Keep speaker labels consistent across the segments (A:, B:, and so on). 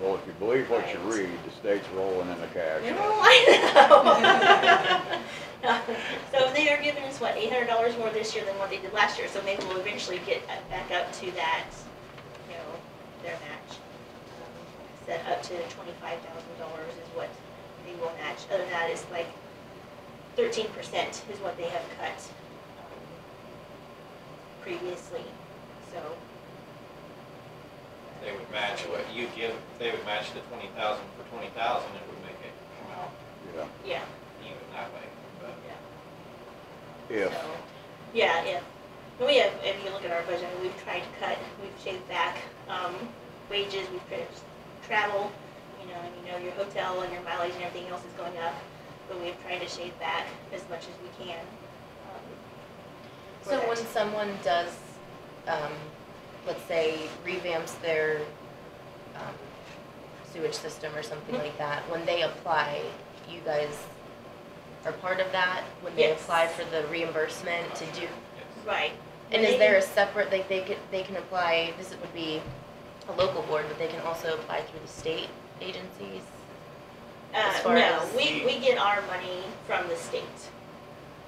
A: Well, if you believe what you read, the state's rolling in the cash.
B: No, I know. So they are giving us, what, eight hundred dollars more this year than what they did last year, so maybe we'll eventually get uh, back up to that, you know, their match. Um, Set up to twenty-five thousand dollars is what they will match, other than that, it's like thirteen percent is what they have cut um, previously, so.
C: They would match what you give, they would match the twenty thousand for twenty thousand, it would make it come out
A: Yeah,
B: Yeah,
C: even that way, but.
B: yeah.
A: if,
B: So, Yeah, if, we have, if you look at our budget, we've tried to cut, we've shaved back, um, wages, we've tried- travel, you know, and you know, your hotel and your mileage and everything else is going up, but we've tried to shave back as much as we can. um, for
D: So
B: that.
D: when someone does, um, let's say revamps their, um, sewage system or something
B: Mhm.
D: like that, when they apply, you guys are part of that? When they
B: Yes.
D: apply for the reimbursement to do,
C: Yes.
B: Right.
D: and is there a separate, like, they could, they can apply, this would be a local board, but they can also apply through the state agencies? as
B: Uh,
D: far
B: no,
D: as-
B: we, we get our money from the state.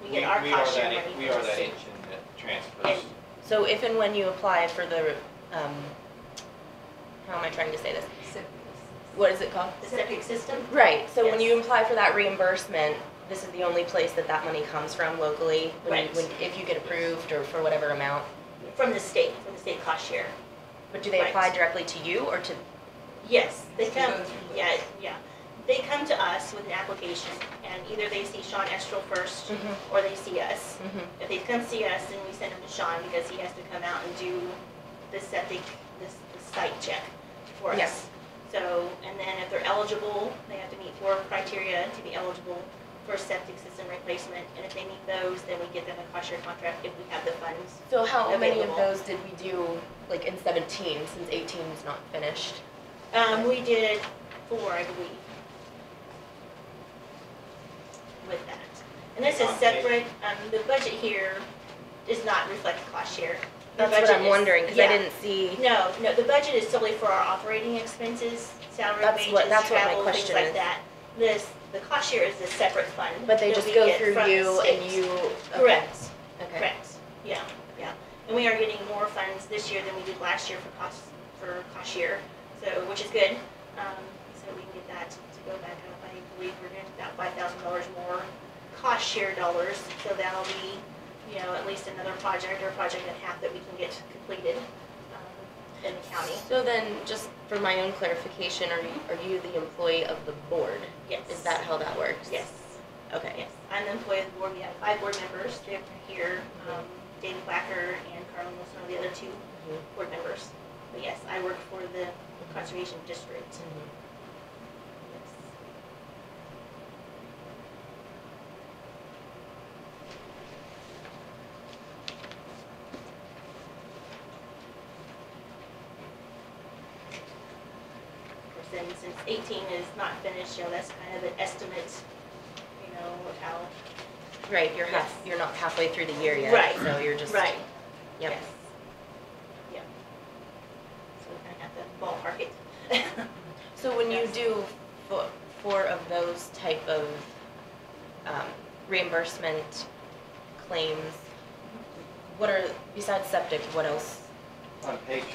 B: We get our
C: are
B: cost share
C: that en-
B: money
C: We
B: from
C: are
B: the
C: that
B: state.
C: engine that transfers.
D: So if and when you apply for the, um, how am I trying to say this? What is it called?
B: The septic system?
D: Right, so when
B: Yes.
D: you apply for that reimbursement, this is the only place that that money comes from locally? when you-
B: Right.
D: when- If you get approved or for whatever amount?
B: From the state, from the state cost share.
D: But do they
B: Right.
D: apply directly to you or to,
B: Yes, they
E: To
B: come,
E: go through
B: yeah, yeah. They come to us with an application, and either they see Sean Estrel first,
D: Mhm.
B: or they see us.
D: Mhm.
B: If they come see us, then we send them to Sean, because he has to come out and do the septic, this, the site check for
D: Yeah.
B: us. So, and then if they're eligible, they have to meet four criteria to be eligible for septic system replacement, and if they meet those, then we get them a cost share contract if we have the funds.
D: so how many of
B: Available.
D: those did we do, like in seventeen, since eighteen is not finished?
B: Um, we did four, I believe. With that. And this is
C: Okay.
B: separate, um, the budget here does not reflect cost share. The
D: That's what
B: budget
D: I'm
B: is-
D: wondering, because I
B: yeah.
D: didn't see,
B: No, no, the budget is solely for our operating expenses, salary,
D: That's
B: wages,
D: what- that's what my
B: travel, things
D: question
B: like
D: is.
B: that. This, the cost share is a separate fund.
D: but they
B: that
D: just
B: we
D: go
B: get
D: through
B: from the
D: you and
B: state.
D: you? okay,
B: Correct.
D: Okay.
B: Correct, yeah, yeah. And we are getting more funds this year than we did last year for cost, for cost year, so, which is good. Um, so we can get that to go back up. I believe we're gonna get about five thousand dollars more cost share dollars, so that'll be, you know, at least another project or project and a half that we can get completed, um, in the county.
D: So then, just for my own clarification, are you, are you the employee of the board?
B: Yes.
D: Is that how that works?
B: Yes.
D: Okay.
B: Yes, I'm the employee of the board, we have five board members, they're here, um, David Blacker and Carl Wilson are the other two
D: Mhm.
B: board members. But yes, I work for the Conservation District.
D: Mhm.
B: Yes. Of course, then since eighteen is not finished, you know, that's kind of an estimate, you know, of how
D: Right, you're half,
B: Yes.
D: you're not halfway through the year yet.
B: Right.
D: So you're just.
B: Right.
D: Yep.
B: Yes. Yep. So we kind of have to ballpark it.
D: So when you
B: Yes.
D: do fo- four of those type of um, reimbursement claims, what are, besides septic, what else?
C: On page,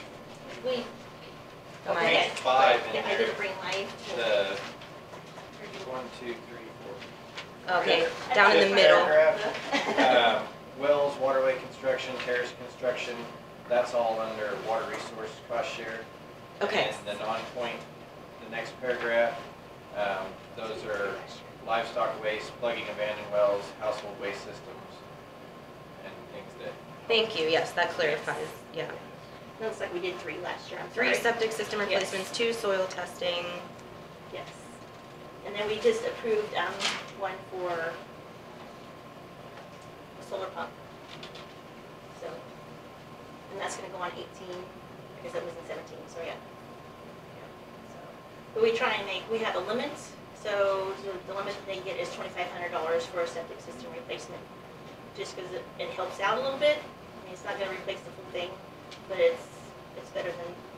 B: We.
D: Am I-
B: okay.
C: Page five in
B: Yeah, I
C: there.
B: didn't bring mine.
C: the, one, two, three, four.
D: Okay,
B: I
D: down in
B: didn't
D: the
B: bring
D: middle.
B: mine.
C: Um, Wells, waterway construction, terrace construction, that's all under water resource cost share.
D: Okay.
C: And then on point, the next paragraph, um, those are livestock waste, plugging abandoned wells, household waste systems, and things that
D: Thank you, yes, that clarifies, yeah.
B: Looks like we did three last year, I'm sorry.
D: Three septic system
B: Yes.
D: replacements, two soil testing.
B: Yes. And then we just approved, um, one for a solar pump. So, and that's gonna go on eighteen, because it was in seventeen, so yeah. Yeah, so. But we try and make, we have a limit, so the- the limit they get is twenty-five hundred dollars for a septic system replacement. Just because it, it helps out a little bit, I mean, it's not gonna replace the full thing, but it's, it's better than